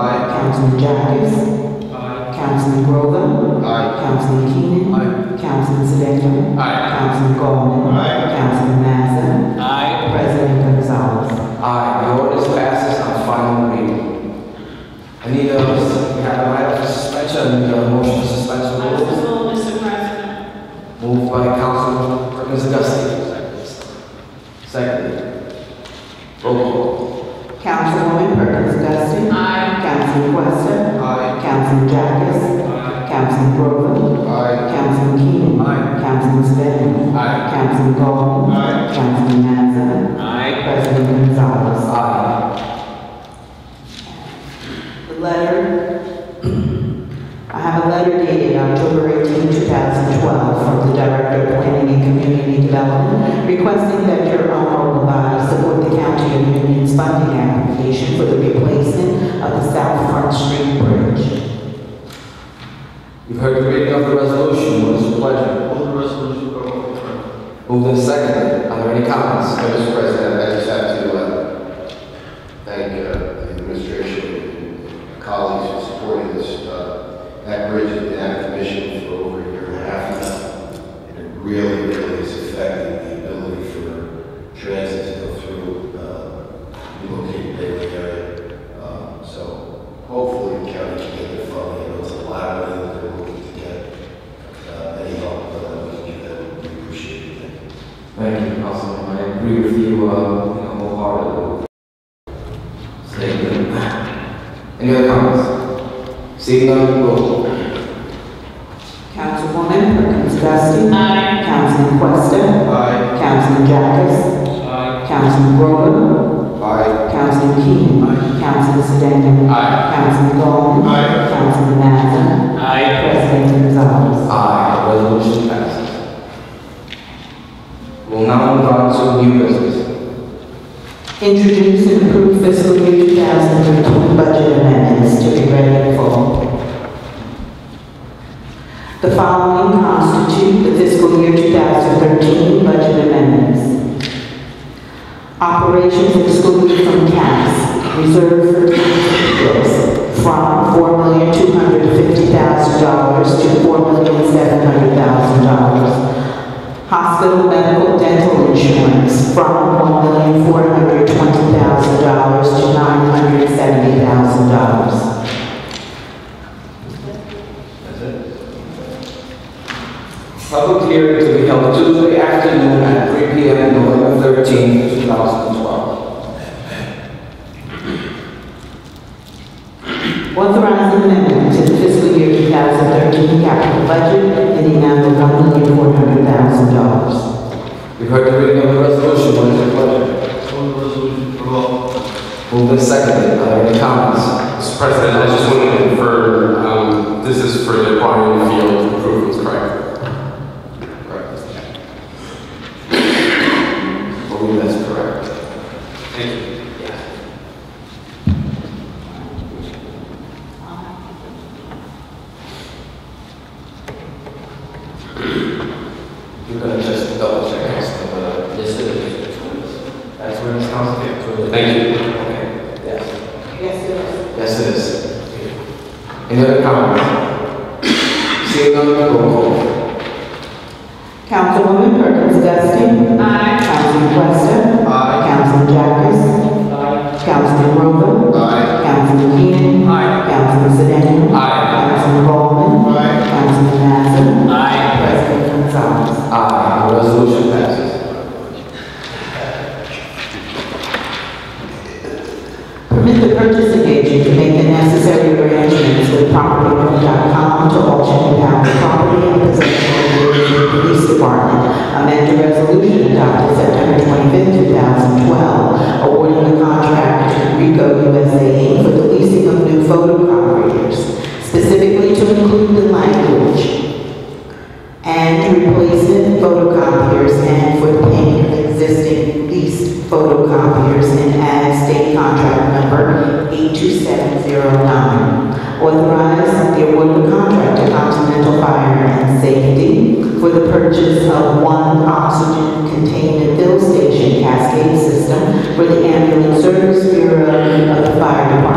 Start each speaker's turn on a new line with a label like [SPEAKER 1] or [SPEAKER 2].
[SPEAKER 1] Councilman Jacobs.
[SPEAKER 2] Aye.
[SPEAKER 1] Councilman Grover.
[SPEAKER 2] Aye.
[SPEAKER 1] Councilman Keenan.
[SPEAKER 2] Aye.
[SPEAKER 1] Councilman Sedan.
[SPEAKER 2] Aye.
[SPEAKER 1] Councilman Gollman.
[SPEAKER 2] Aye.
[SPEAKER 1] Councilman Mazza.
[SPEAKER 2] Aye.
[SPEAKER 1] President Gonzalez.
[SPEAKER 3] Aye, the ordinance passes on final reading. I need a, we have a right for suspension, I need a motion to suspend
[SPEAKER 4] I
[SPEAKER 3] the
[SPEAKER 4] will,
[SPEAKER 3] rules.
[SPEAKER 4] Mr. President.
[SPEAKER 3] Moved by Councilman Ms. Augustine. Second. Roll call.
[SPEAKER 1] Councilwoman Perkins Dusting.
[SPEAKER 4] Aye.
[SPEAKER 1] Councilman Questa.
[SPEAKER 3] Aye.
[SPEAKER 1] Councilman Jacobs. Councilman Grover.
[SPEAKER 3] Aye.
[SPEAKER 1] Councilman Keenan.
[SPEAKER 3] Aye.
[SPEAKER 1] Councilman Sedan.
[SPEAKER 3] Aye.
[SPEAKER 1] Councilman Gollman.
[SPEAKER 3] Aye.
[SPEAKER 1] Councilman Mazza.
[SPEAKER 3] Aye.
[SPEAKER 1] President Gonzalez.
[SPEAKER 3] Aye.
[SPEAKER 1] The letter, I have a letter dated October 18, 2012, from the Director of Planning and Community Development requesting that your honorable body support the County of Union's funding application for the replacement of the South Front Street Bridge.
[SPEAKER 3] You've heard the reading of the resolution, what is your pleasure?
[SPEAKER 2] Move the resolution for over the referendum.
[SPEAKER 3] Moved and seconded, are there any comments?
[SPEAKER 5] Mr. President, I just have to uh, thank uh, the administration and colleagues for supporting this, uh, that bridge and that commission for over a year and a half now. And it really, really is affecting the ability for transit to go through, uh, relocated Bailey area. Um, So hopefully the county can get the funding, it was a lot of money that they're looking to get. Uh, Any help that we can give them, we appreciate it.
[SPEAKER 3] Thank you, Councilman, I agree with you, uh, you know, wholeheartedly. Thank you. Any other comments? Seeing none, roll call.
[SPEAKER 1] Councilwoman Perkins Dusting.
[SPEAKER 4] Aye.
[SPEAKER 1] Councilman Questa.
[SPEAKER 2] Aye.
[SPEAKER 1] Councilman Jacobs.
[SPEAKER 2] Aye.
[SPEAKER 1] Councilman Grover.
[SPEAKER 5] Aye.
[SPEAKER 1] Councilman Keenan. Councilman Sedan.
[SPEAKER 2] Aye.
[SPEAKER 1] Councilman Gollman.
[SPEAKER 2] Aye.
[SPEAKER 1] Councilman Mazza.
[SPEAKER 2] Aye.
[SPEAKER 1] President Gonzalez.
[SPEAKER 3] Aye, resolution passes. We'll now move on to new business.
[SPEAKER 1] Introduce and approve fiscal year 2013 budget amendments to be read in full. The following constitute the fiscal year 2013 budget amendments. Operations excluded from caps, reserved for books, from $4,250,000 to $4,700,000. Hospital medical dental insurance, from $1,420,000 to $970,000.
[SPEAKER 3] Public hearing to be held Tuesday afternoon at 3 PM, November 13, 2012.
[SPEAKER 1] Authorizing amendment to the fiscal year 2013 capital budget in the amount of $1,400,000.
[SPEAKER 3] You've heard the reading of the resolution, what is your pleasure?
[SPEAKER 2] Move the resolution for over.
[SPEAKER 3] Moved and seconded, are there any comments?
[SPEAKER 6] Mr. President, I just want to confirm, um, this is for the Quantum Field improvements, correct?
[SPEAKER 3] I believe that's correct.
[SPEAKER 6] Thank you.
[SPEAKER 3] You're gonna just double check, Councilman, but uh, this is. That's where it's coming from.
[SPEAKER 6] Thank you.
[SPEAKER 3] Okay, yes.
[SPEAKER 1] Yes, sir.
[SPEAKER 3] Yes, it is. Any other comments? Seeing none, roll call.
[SPEAKER 1] Councilwoman Perkins Dusting.
[SPEAKER 4] Aye.
[SPEAKER 1] Councilman Questa.
[SPEAKER 2] Aye.
[SPEAKER 1] Councilman Jacobs.
[SPEAKER 2] Aye.
[SPEAKER 1] Councilman Rowland.
[SPEAKER 5] Aye.
[SPEAKER 1] Councilman Keenan.
[SPEAKER 2] Aye.
[SPEAKER 1] Councilman Sedan.
[SPEAKER 6] Aye.
[SPEAKER 1] Councilman Bowman.
[SPEAKER 2] Aye.
[SPEAKER 1] Councilman Mazza.
[SPEAKER 6] Aye.
[SPEAKER 1] President Gonzalez.
[SPEAKER 3] Aye, the Ah, resolution passes.
[SPEAKER 1] Permit the purchasing agent to make the necessary arrangements with property.com to auction down the property and possession of the Union Police Department. Amend the resolution adopted September 25, 2012, awarding the contract to Rico USA Inc. for the leasing of new photocopiers, specifically to include the language and replacement photocopiers and for the payment of existing leased photocopiers and add state contract number 82709. Authorize the award of a contract to Continental Fire and Safety for the purchase of one oxygen containment fill station cascade system for the ambulance service bureau of the fire department